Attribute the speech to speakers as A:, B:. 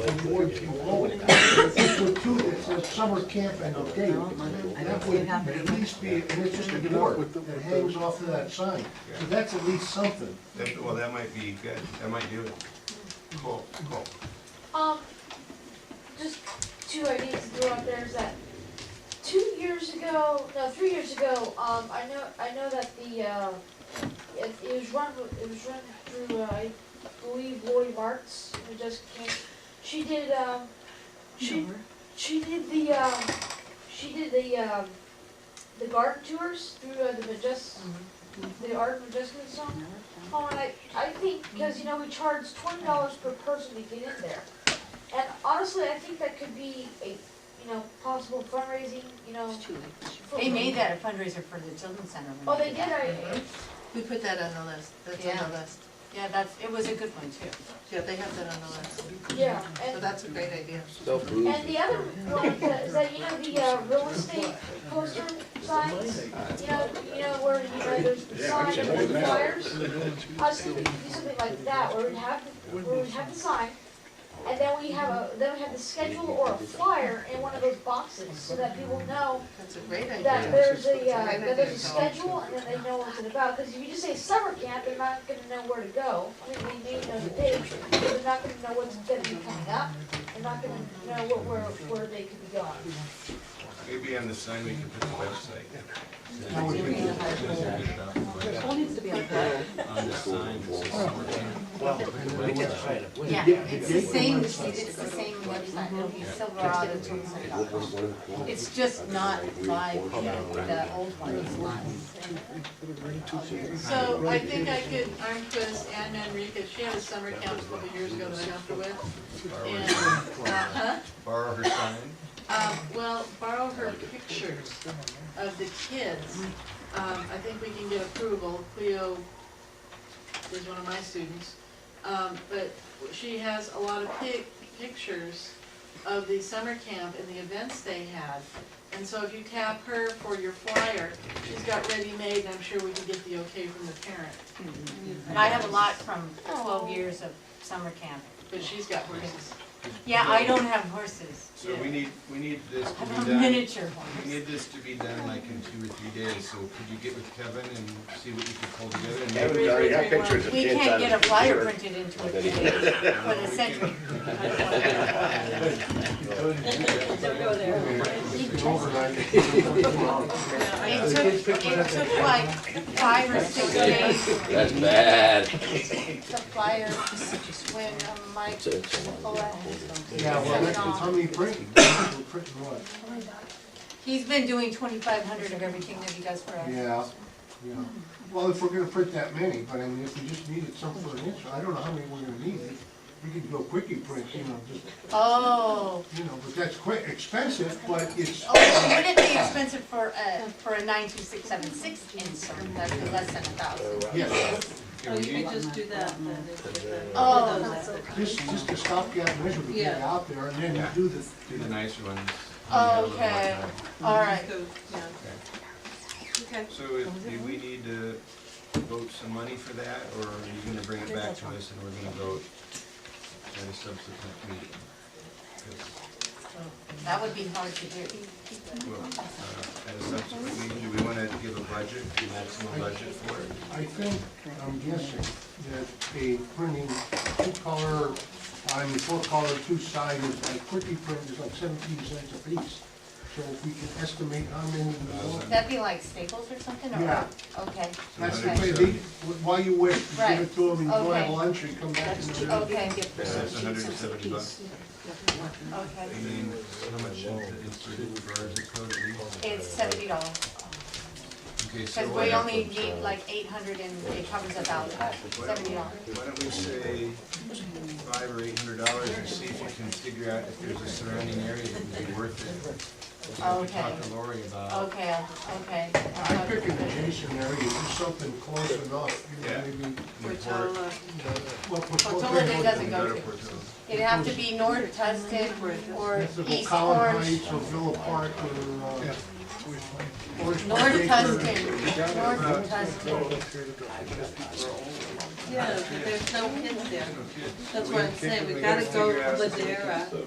A: award to voting. If we put two that says summer camp and a date, that would at least be, and it's just a board that hangs off of that sign. So that's at least something.
B: That- Well, that might be good, that might do it. Cool, cool.
C: Um, just two ideas to throw out there is that two years ago, no, three years ago, um, I know, I know that the, uh, it, it was run, it was run through, uh, I believe Lori Martz, who just came, she did, um, she, she did the, um, she did the, um, the garden tours through uh, the Majestic,
D: Mm-hmm.
C: the Art of Majestic song. Oh, and I, I think, because, you know, we charge twenty dollars per person to get in there. And honestly, I think that could be a, you know, possible fundraising, you know. for-
D: They made that Mm-hmm. a fundraiser for the children's center. when
C: Oh, they did,
D: that.
C: I,
E: We put that on the list, that's on the
D: Yeah.
E: list.
D: Yeah, that's, it was a good one too.
E: Yeah, they have that on the list.
C: yeah,
E: So
C: and,
E: that's a great idea.
C: and the other one is that- is that, you know, the, uh, real estate poster signs, you know, you know, where, you know, there's the sign and there's the flyers. I was thinking we could do something like that, where we'd have, the- where we'd have the sign, and then we have a, then we have the schedule or a flyer in one of those boxes, so that people know
E: That's a great
C: that
E: idea.
C: there's a, uh, that there's a schedule and that they know what it's about, because if you just say summer camp, they're not gonna know where to go. I mean, they may know the date, but they're not gonna know what's gonna be coming up, they're not gonna know what, where, where they could be going.
B: Maybe on the sign we can put the website.
D: Yeah, it's the same, it's the same website, it'll be silverado.com. It's just not live, the old one is live.
E: So I think I could arm twist Anna Enriquez, she had a summer camp a couple years ago that I helped her with. And, uh,
D: Uh-huh.
E: huh?
B: Borrow her sign.
E: Um, well, borrow her pictures of the kids. Um, I think we can get approval. Cleo is one of my students. Um, but she has a lot of pic- pictures of the summer camp and the events they had. And so if you tap her for your flyer, she's got ready-made, and I'm sure we can get the okay from the parent.
D: And I have a lot from twelve years of summer camp.
E: But she's got horses.
D: Yeah, I don't have horses.
B: So we need, we need this
D: I
B: to
D: have
B: be
D: a
B: done,
D: miniature
B: we
D: horse.
B: need this to be done like in two or three days, so could you get with Kevin and see what you can pull together and maybe?
F: Kevin's already got
E: Every-
F: pictures of
D: We
F: kids out
D: can't
F: of
D: get a
F: the
D: flyer
F: computer.
D: printed into it today for the century. It took, it took like five or six days
G: That's bad.
D: to flyer when uh, Mike Colette
A: Yeah, well,
D: was
A: that's how
D: on.
A: many printing, We're printing what?
D: He's been doing twenty-five hundred of everything that he does for us.
A: Yeah, yeah. Well, if we're gonna print that many, but I mean, if we just needed some for an issue, I don't know how many we're gonna need. We could go quickie print, you know, just,
D: Oh,
A: you know, but that's quick, expensive, but it's,
D: oh, would it be expensive for a, for a nine-two-six-seven-six insert, that'd be less than a thousand?
A: yes.
H: Oh, you could just do that, then, and get the-
D: Oh,
A: Just, just a stopgap measure to get it
H: Yeah.
A: out there and then you
B: Yeah.
A: do the,
B: Do the nicer ones.
D: okay, all right.
H: So, yeah. Okay.
B: So if- do we need to vote some money for that, or are you gonna bring it back to us and we're gonna vote at a subsequent meeting? 'Cause,
D: That would be hard to do.
B: well, uh, At a subsequent meeting, do we wanna give a budget, a maximum budget for it?
A: I think, I'm guessing, that a printing two-color, I mean, four-color, two-sided, like quickie print is like seventeen cents a piece. So if we can estimate how many we want.
D: That'd be like Staples or something, or,
A: Yeah.
D: okay,
A: That's the
B: Okay.
A: way they, while you wait, you give
D: Right.
A: it to them, and go have
D: Okay.
A: lunch and come back and do it.
D: okay,
B: That's hundred and seventy bucks.
D: okay.
B: And then how much is it inserted for our zip code at least?
D: It's seventy dollars,
B: Okay, so
D: because
B: why uh,
D: we
B: don't-
D: only need like eight hundred and it covers a thousand, seventy dollars.
B: Why don't we say five or eight hundred dollars and see if we can figure out if there's a surrounding area that would be worth it. We'll
D: Okay. Oh,
B: Talk to Lori about.
D: Okay, Oh, okay.
A: I pick an adjacent area, do something close enough, you know,
B: Yeah.
A: maybe,
B: Newport,
E: Portola.
A: well, for- for-
D: Portola doesn't
B: go
D: go
B: to
D: to.
B: Portola.
D: It'd have to be North Tustin or
A: It's the
D: East
A: Collin
D: Orange.
A: Heights or Villa Park or, uh, Orange
D: Lord
A: County
D: Tustin.
A: Baker.
D: Lord
A: Uh,
D: Tustin.
H: Yeah, but there's no kids there.
B: No kids.
H: That's
B: We
H: what I'm
B: can't-
H: saying, we
B: gotta
H: gotta go
B: figure out
H: to
B: something.
H: Ladera.